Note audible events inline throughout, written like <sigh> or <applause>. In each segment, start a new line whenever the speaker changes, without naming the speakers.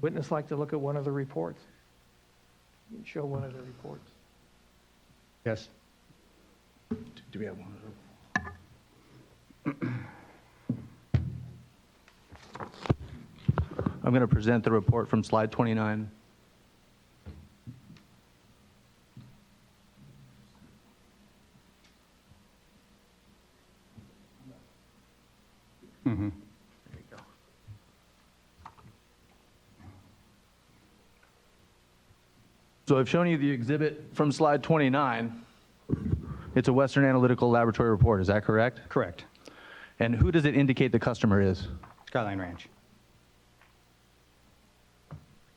Witness like to look at one of the reports? Show one of the reports.
Yes.
Do we have one?
I'm going to present the report from slide 29. So I've shown you the exhibit from slide 29. It's a Western Analytical Laboratory report, is that correct?
Correct.
And who does it indicate the customer is?
Skyline Ranch.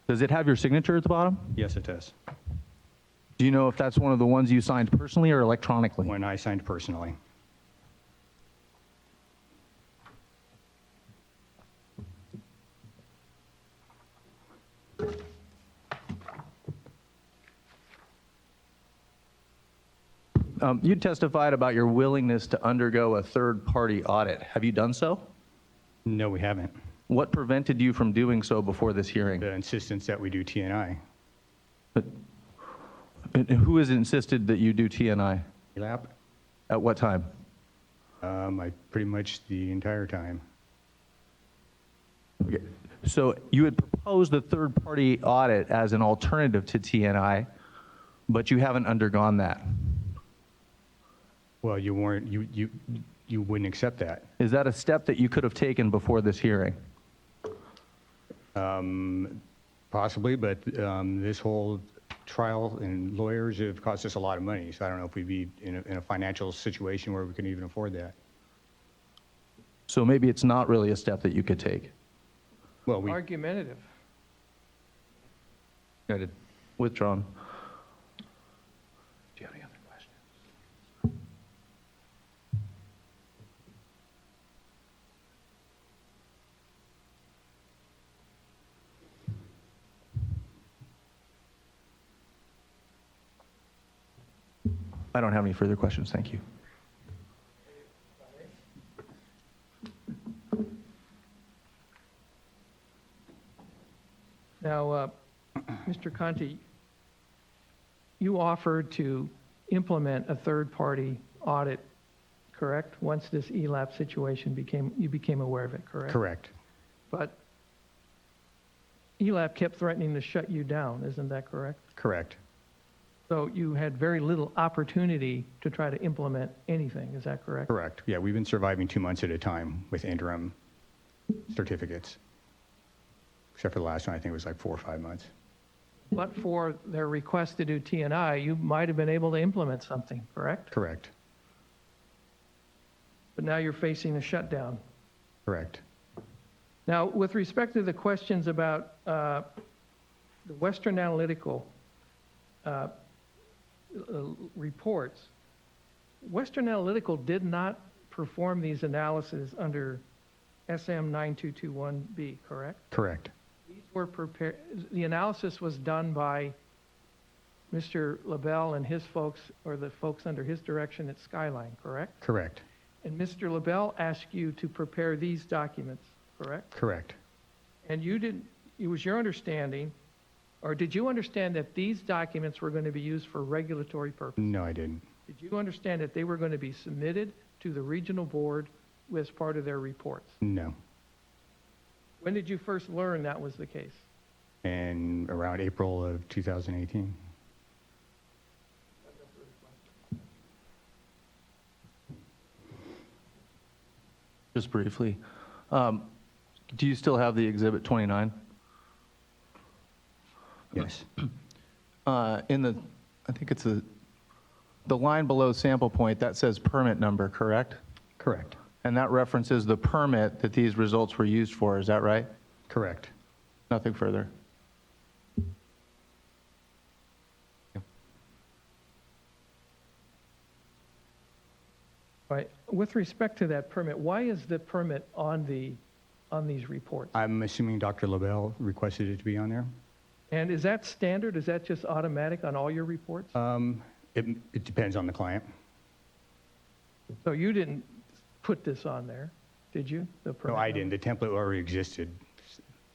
Does it have your signature at the bottom?
Yes, it does.
Do you know if that's one of the ones you signed personally or electronically?
When I signed personally.
Um, you testified about your willingness to undergo a third-party audit. Have you done so?
No, we haven't.
What prevented you from doing so before this hearing?
The insistence that we do TNI.
And who has insisted that you do TNI?
Lap.
At what time?
Um, I, pretty much the entire time.
Okay. So you had proposed the third-party audit as an alternative to TNI, but you haven't undergone that.
Well, you weren't, you, you, you wouldn't accept that.
Is that a step that you could have taken before this hearing?
Possibly, but um, this whole trial and lawyers have cost us a lot of money, so I don't know if we'd be in a, in a financial situation where we can even afford that.
So maybe it's not really a step that you could take.
Well, we,
Argumentative.
Noted. Withdrawn.
Do you have any other questions?
I don't have any further questions, thank you.
Now, uh, <clears throat> Mr. Conti, you offered to implement a third-party audit, correct? Once this E ELAP situation became, you became aware of it, correct?
correct.
But E ELAP kept threatening to shut you down, isn't that correct?
Correct.
So you had very little opportunity to try to implement anything, is that correct?
Correct. Yeah, we've been surviving two months at a time with interim certificates. Except for the last one, I think it was like four or five months.
But for their request to do TNI, you might have been able to implement something, correct?
Correct.
But now you're facing a shutdown.
Correct.
Now, with respect to the questions about uh, the Western Analytical uh, uh, reports, Western Analytical did not perform these analyses under SM 9221B, correct?
Correct.
These were prepared, the analysis was done by Mr. LaBelle and his folks, or the folks under his direction at Skyline, correct?
Correct.
And Mr. LaBelle asked you to prepare these documents, correct?
Correct.
And you didn't, it was your understanding, or did you understand that these documents were going to be used for regulatory purposes?
No, I didn't.
Did you understand that they were going to be submitted to the regional board as part of their reports?
No.
When did you first learn that was the case?
And around April of 2018.
Just briefly, um, do you still have the Exhibit 29?
Yes.
<clears throat> Uh, In the, I think it's the, the line below sample point, that says permit number, correct?
Correct.
And that references the permit that these results were used for, is that right?
Correct.
Nothing further.
Right, with respect to that permit, why is the permit on the, on these reports?
I'm assuming Dr. LaBelle requested it to be on there.
And is that standard, is that just automatic on all your reports?
Um, It it depends on the client.
So you didn't put this on there, did you? the
No,
permit
I
number?
didn't. The template already existed.